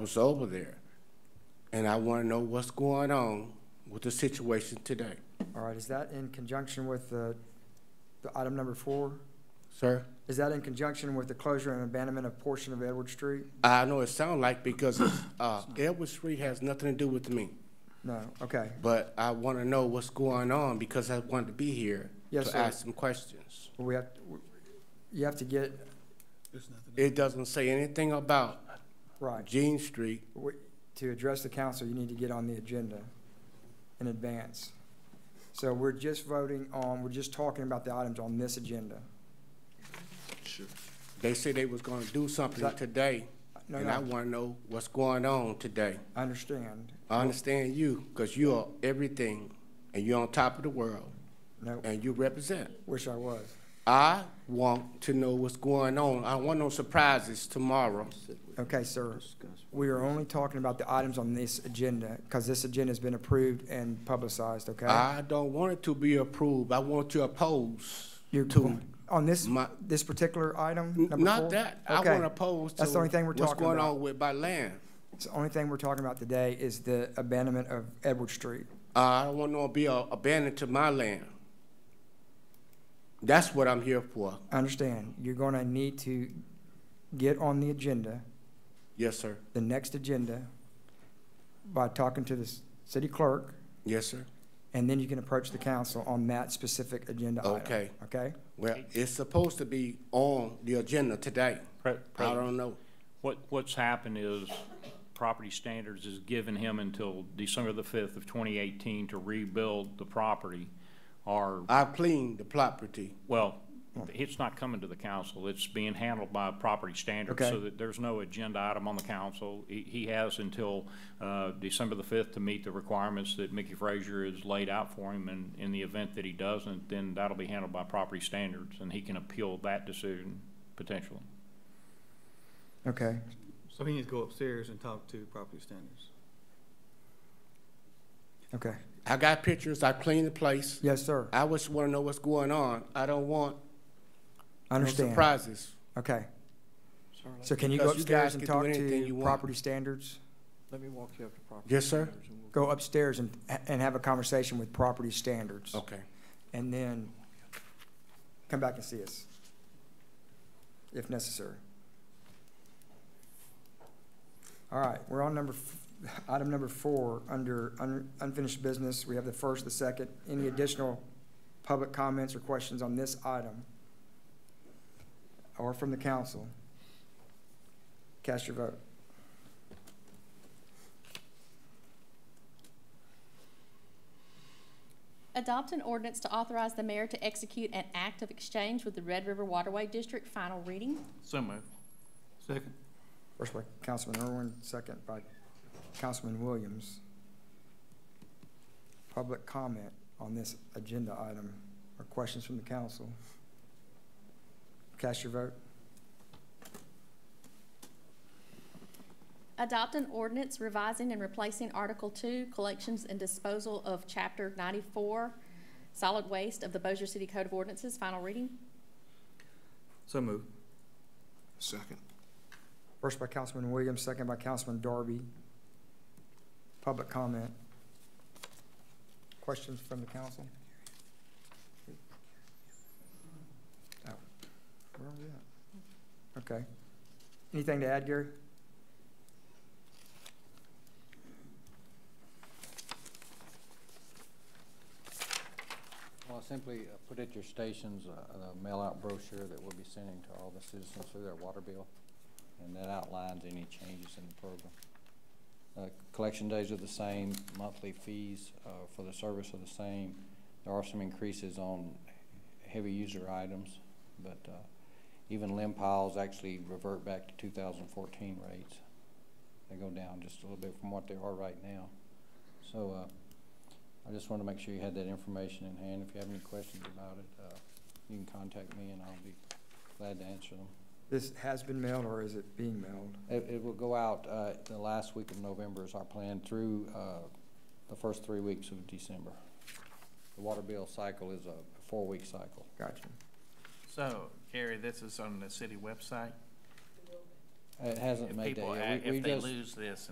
was over there. And I want to know what's going on with the situation today. All right, is that in conjunction with the, the item number four? Sir, Is that in conjunction with the closure and abandonment of portion of Edward Street? I know it sounds like because it's, uh, Edward Street has nothing to do with me, No, okay. but I want to know what's going on because I wanted to be here Yes, to sir. ask some questions. We have, you have to get, It doesn't say anything about right, Jean Street. We- to address the council, you need to get on the agenda in advance. So we're just voting on, we're just talking about the items on this agenda. They said they was going to do something That- today, No, and I no, want to know what's going on today. I understand. I understand you because you are everything and you're on top of the world No, and you represent. wish I was. I want to know what's going on. I want no surprises tomorrow. Okay, sir. We are only talking about the items on this agenda, because this agenda's been approved and publicized, okay? I don't want it to be approved. I want you oppose You're- to, On this, my- this particular item, number four? not that. I Okay. want to oppose to That's the only thing we're what's talking going about. on with my land. It's The only thing we're talking about today is the abandonment of Edward Street. I don't want no to be a- abandoned to my land. That's what I'm here for. I understand, you're gonna need to get on the agenda, Yes, sir. the next agenda, by talking to the s- city clerk, Yes, sir. and then you can approach the council on that specific agenda item. Okay. Okay? Well, it's supposed to be on the agenda today. Pre- I President, don't know. What, what's happened is Property Standards has given him until December the fifth of twenty eighteen to rebuild the property. Or, I've cleaned the property. well, it's not coming to the council. It's being handled by Property Standards. Okay. So that there's no agenda item on the council. He, he has until, uh, December the fifth to meet the requirements that Mickey Frazier has laid out for him. And in the event that he doesn't, then that'll be handled by Property Standards and he can appeal that decision potentially. Okay, So he needs to go upstairs and talk to property standards. okay. I got pictures. I cleaned the place. Yes, sir, I just want to know what's going on. I don't want I no understand. surprises. Okay. So can you go Because you guys upstairs and can do talk anything you to want. property standards? Let me walk you up to property. Yes, sir. Go upstairs and, and have a conversation with property standards. Okay. And then come back and see us, if necessary. All right, we're on number, f- item number four, under un- unfinished business. We have the first, the second. Any additional public comments or questions on this item? Or from the council? Cast your vote. Adopt an ordinance to authorize the mayor to execute an act of exchange with the Red River Waterway District, final reading. So moved. Second. First by Councilman Irwin, second by Councilman Williams. Public comment on this agenda item or questions from the council. Cast your vote. Adopt an ordinance revising and replacing Article Two, Collections and Disposal of Chapter ninety-four, Solid Waste of the Bossier City Code of Ordinances, final reading. So moved. First by Councilman Williams, second by Councilman Darby. Public comment. Questions from the council? Oh, where are we at? Okay. Anything to add, Gary? Well, simply uh, put at your stations uh, a a mail-out brochure that we'll be sending to all the citizens through their water bill, and that outlines any changes in the program. Uh, Collection days are the same, monthly fees uh, for the service are the same. There are some increases on heavy user items, but uh, even limb piles actually revert back to 2014 rates. They go down just a little bit from what they are right now. So uh, I just wanted to make sure you had that information in hand. If you have any questions about it, uh, you can contact me and I'll be glad to answer them. This has been mailed or is it being mailed? It, it will go out, uh, the last week of November is our plan through, uh, the first three weeks of December. The water bill cycle is a four-week cycle. Gotcha. So, Gary, this is on the city website? It hasn't If made that people, yet. act- We- we if they just- lose this